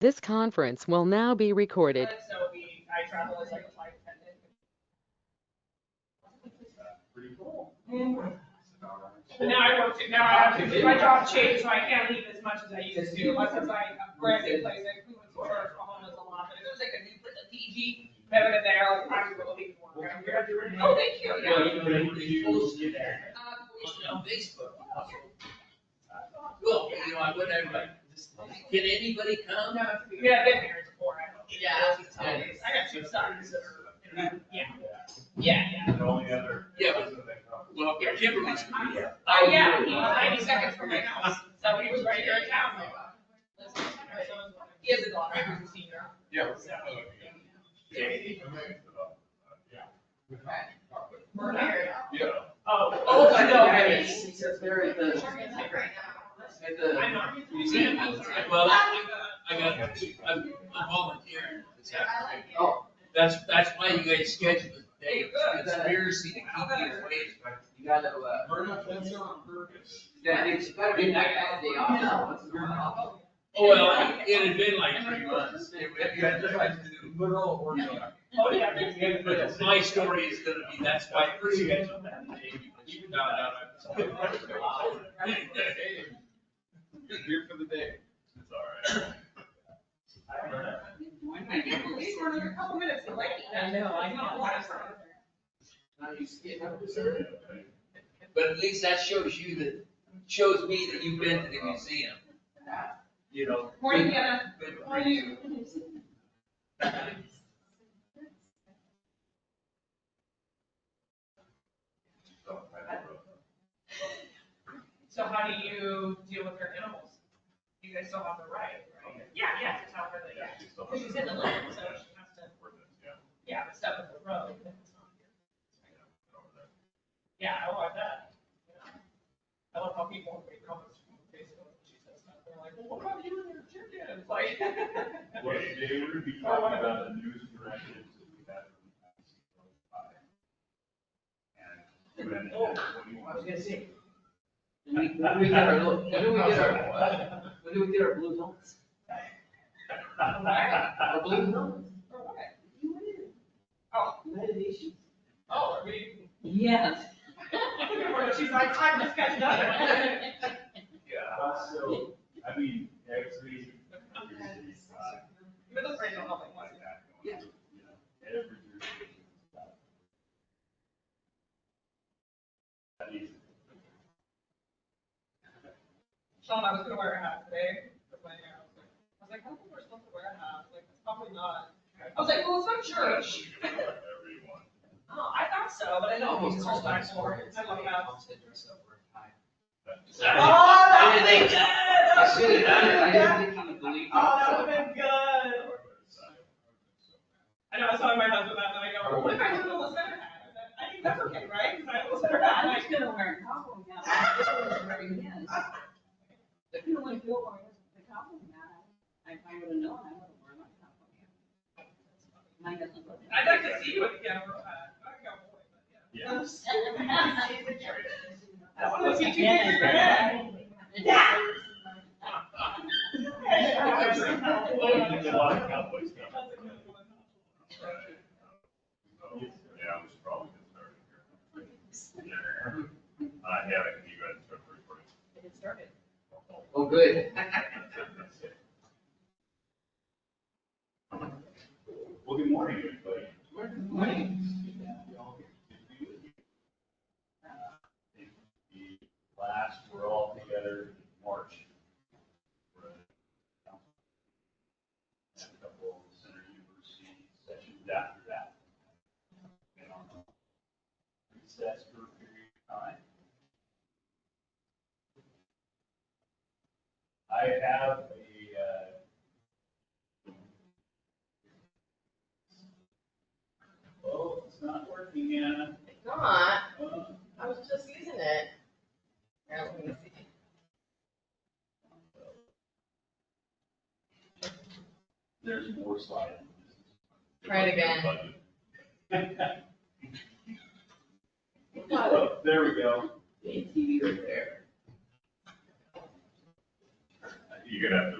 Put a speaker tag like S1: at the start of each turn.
S1: This conference will now be recorded.
S2: So we, I travel as like a flight attendant.
S3: Pretty cool.
S2: But now I work, two- now I have to, my job changed, so I can't leave as much as I used to, unless it's like a brand new place, like we went to church, a home was a lot, but if it was like a new, place, a DG, better than there, like, I'm gonna leave work. I'm here. Oh, thank you, yeah. Uh, we-
S4: on Facebook. Look, you know, I went everybody, can anybody
S2: Um,
S4: come?
S2: no, Yeah, I've been here before, I don't.
S4: Yeah.
S2: I got two sons. Yeah, yeah, yeah.
S3: The only other.
S4: Yeah. Well, Kimberly's.
S2: Oh, yeah, he was ninety seconds from my house, so he was right here in town. He has a daughter, who's a senior.
S3: Yeah.
S2: We're married.
S3: Yeah.
S2: Oh.
S4: Oh, I know,
S2: I
S4: I
S2: mean,
S4: mean, they're at the, at the
S2: I'm not.
S4: museum. Well, I I got, I'm I'm volunteering. It's happening.
S5: Oh.
S4: That's, that's why you guys scheduled the day
S2: Good.
S4: of conspiracy to keep me away.
S5: You gotta, uh, that it's gotta be like that day off.
S4: Oh, Well, it had been like three months. It- it- you had to try to do-
S5: Literal
S2: Oh, yeah.
S4: But my story is gonna be, that's why I first scheduled that day, because you found out I was.
S3: Here for the day. It's all right.
S2: I can't believe we're only a couple minutes late. I know, I know.
S4: But at least that shows you that, shows me that you've been to the museum. You know.
S2: Morning, Hannah.
S4: been-
S2: How are you? So how do you deal with your animals? You guys still have the right, right? Yeah, yeah, to tell her that, yeah. Because she's in the land, so she has to, yeah, but stuff in the road. Yeah, oh, I want that. I love how people make comments on Facebook, when she says stuff, they're like, well, what about you and your chickens? Like.
S3: Well, today we're gonna be talking about the news directives that we had from the past five. And then, what do you
S5: I was
S3: want?
S5: gonna say. When we, when we get our, little- when do we get our, when do we get our blue zones? Our blue zones,
S2: For what? Oh,
S5: United Nations.
S2: oh, I mean,
S5: Yes.
S2: she's like, time to catch another one.
S3: Yeah, so, I mean, actually. there's, uh,
S2: But that's right, I don't know if I want
S3: like
S2: it.
S3: that going,
S5: Yeah.
S3: you know, every jurisdiction is about- That is-
S2: Sean, I was gonna wear a hat today, but my hair, I was like, I was like, I don't think we're supposed to wear a hat, like, it's probably not. I was like, well, it's not church.
S3: Everyone.
S2: Oh, I thought so, but I know it was called back for it, I love hats. Oh, that would've been good, that
S5: I
S2: would've
S5: should
S2: been
S5: have done it, I
S2: good.
S5: didn't think you would believe
S2: Oh,
S5: it.
S2: that would've been good. I know, I was telling my husband that, and I go, what if I have a little center hat? And then, I think that's okay, right? Because I have a little center hat, and I
S6: I'm just gonna wear a cowboy hat. That's what it's already is. If you only feel like the cowboy hat, if I would have known, I would have worn my cowboy hat. Mine doesn't look.
S2: I'd like to see you with the camera. I
S3: Yeah.
S2: want to see two things in your head. Yeah.
S3: A lot of cowboys come. Yeah, I was probably just starting here. Uh, I haven't, you guys started recording.
S5: Oh, good.
S3: Well, good morning, everybody. The last, we're all together in March. And a couple of center university sessions after that. And on recess for a period of time. I have a, uh, Oh, it's not working, Anna.
S7: It's not,
S3: Oh,
S7: I was just using it. Now, let me see.
S3: There's more slide.
S7: Try it again.
S3: Oh, There we go.
S5: TV right there.
S3: You're gonna have to